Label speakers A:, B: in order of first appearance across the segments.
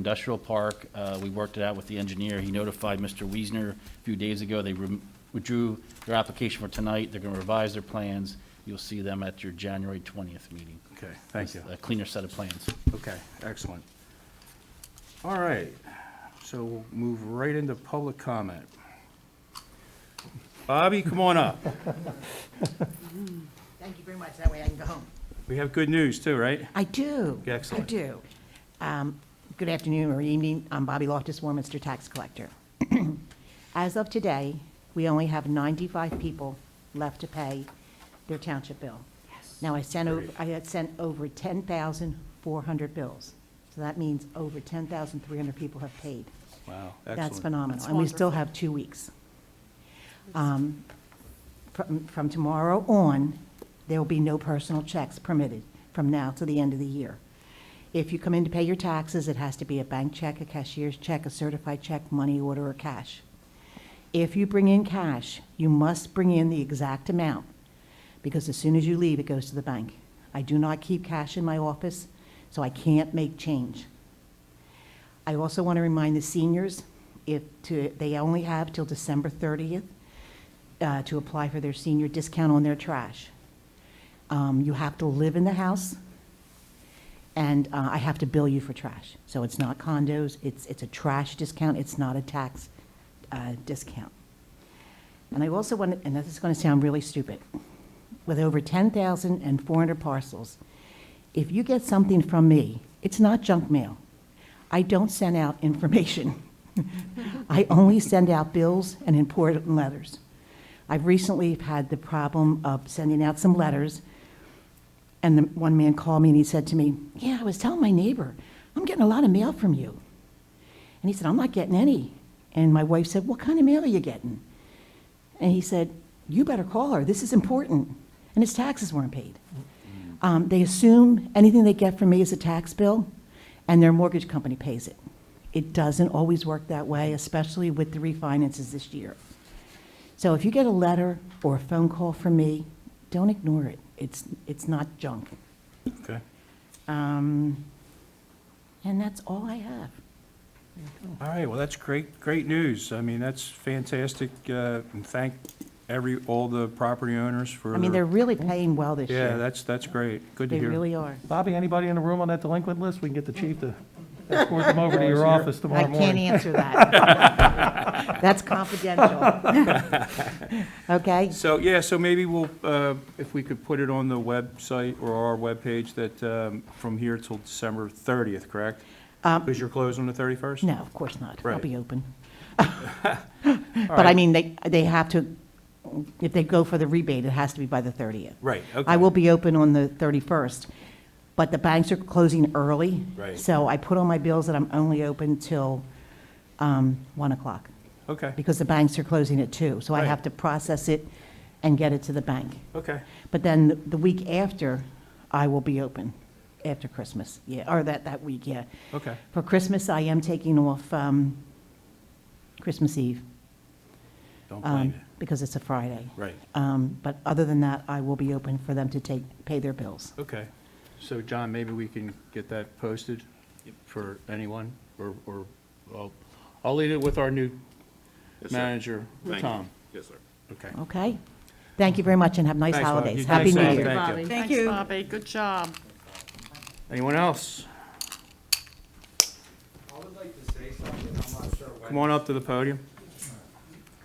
A: industrial park. Uh, We worked it out with the engineer. He notified Mr. Wiesner a few days ago. They rem- withdrew their application for tonight. They're going to revise their plans. You'll see them at your January 20th meeting.
B: Okay, thank you.
A: A cleaner set of plans.
B: Okay, excellent. All right, so we'll move right into public comment. Bobby, come on up.
C: Thank you very much, that way I can go home.
B: We have good news too, right?
C: I do.
B: Excellent.
C: I do. Um, Good afternoon or evening, I'm Bobby Loftus, Warminster Tax Collector. As of today, we only have 95 people left to pay their township bill. Now, I sent, over I had sent over 10,400 bills, so that means over 10,300 people have paid.
B: Wow,
C: That's
B: excellent.
C: phenomenal, and we still have two weeks. Um, From from tomorrow on, there will be no personal checks permitted from now to the end of the year. If you come in to pay your taxes, it has to be a bank check, a cashier's check, a certified check, money order, or cash. If you bring in cash, you must bring in the exact amount, because as soon as you leave, it goes to the bank. I do not keep cash in my office, so I can't make change. I also want to remind the seniors, if, to, they only have till December 30th uh, to apply for their senior discount on their trash. Um, You have to live in the house, and uh, I have to bill you for trash. So it's not condos, it's, it's a trash discount, it's not a tax uh, discount. And I also want, and this is going to sound really stupid, with over 10,400 parcels, if you get something from me, it's not junk mail. I don't send out information. I only send out bills and important letters. I've recently had the problem of sending out some letters, and the one man called me and he said to me, "Yeah, I was telling my neighbor, I'm getting a lot of mail from you." And he said, "I'm not getting any." And my wife said, "What kind of mail are you getting?" And he said, You better call her. This is important. And his taxes weren't paid. Um, they assume anything they get from me is a tax bill, and their mortgage company pays it. It doesn't always work that way, especially with the refinances this year. So if you get a letter or a phone call from me, don't ignore it. It's, it's not junk.
B: Okay.
C: Um, and that's all I have.
B: All right, well, that's great, great news. I mean, that's fantastic, uh, and thank every, all the property owners for.
C: I mean, they're really paying well this
B: Yeah,
C: year.
B: that's, that's great. Good to
C: They
B: hear.
C: really are.
D: Bobby, anybody in the room on that delinquent list? We can get the chief to escort them over to your office
C: I
D: tomorrow
C: can't
D: morning.
C: answer that. That's confidential. Okay?
B: So, yeah, so maybe we'll, uh, if we could put it on the website or our webpage that um, from here till December 30th, correct? Because you're closed on the 31st?
C: Um, No, of course not. I'll
B: Right.
C: be open. But I mean, they, they have to, if they go for the rebate, it has to be by the 30th.
B: Right, okay.
C: I will be open on the 31st, but the banks are closing early.
B: Right.
C: So I put on my bills that I'm only open till um, 1 o'clock,
B: Okay,
C: because the banks are closing at 2. So I
B: Right.
C: have to process it and get it to the bank.
B: okay.
C: But then the- the week after, I will be open, after Christmas, yeah, or that, that week, yeah.
B: Okay.
C: For Christmas, I am taking off um, Christmas Eve,
B: Don't blame
C: um,
B: you.
C: because it's a Friday.
B: Right,
C: Um, But other than that, I will be open for them to take, pay their bills.
B: okay. So, John, maybe we can get that posted for anyone, or, or, well, I'll leave it with our new
E: Yes, sir.
B: manager,
E: Thank you.
B: Tom.
E: Yes, sir.
B: Okay.
C: Okay? Thank you very much, and have nice
B: Thanks, Bob. You
C: holidays.
B: too.
C: Happy New
B: Thanks,
C: Year.
B: Bob.
F: Bobby.
B: you.
F: Thanks, Bobby. Good job.
B: Anyone else?
G: I would like to say something, I'm not sure when.
B: Come on up to the podium.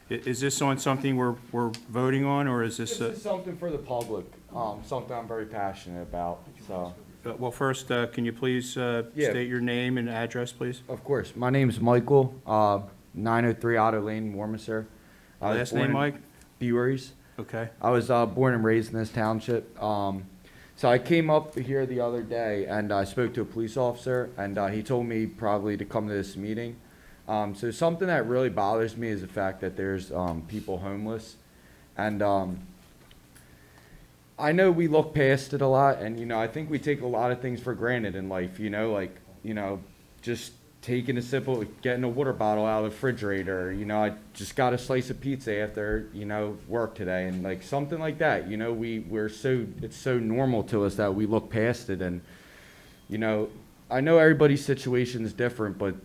B: I- Is this on something we're, we're voting on, or is this,
G: This
B: uh,
G: is something for the public, um, something I'm very passionate about, so.
B: uh, well, first, uh, can you please uh,
G: Yeah.
B: state your name and address, please?
G: Of course, my name's Michael, uh, nine oh three Otter Lane, Warmminster. I was
B: Last name,
G: born in
B: Mike?
G: Beweries.
B: Okay,
G: I was, uh, born and raised in this township, um, so I came up here the other day and I spoke to a police officer and, uh, he told me probably to come to this meeting. Um, so something that really bothers me is the fact that there's, um, people homeless and, um, I know we look past it a lot, and you know, I think we take a lot of things for granted in life. You know, like you know, just taking a simple, getting a water bottle out of the refrigerator. You know, I just got a slice of pizza after you know work today, and like something like that. You know, we we're so it's so normal to us that we look past it, and you know, I know everybody's situation is different, but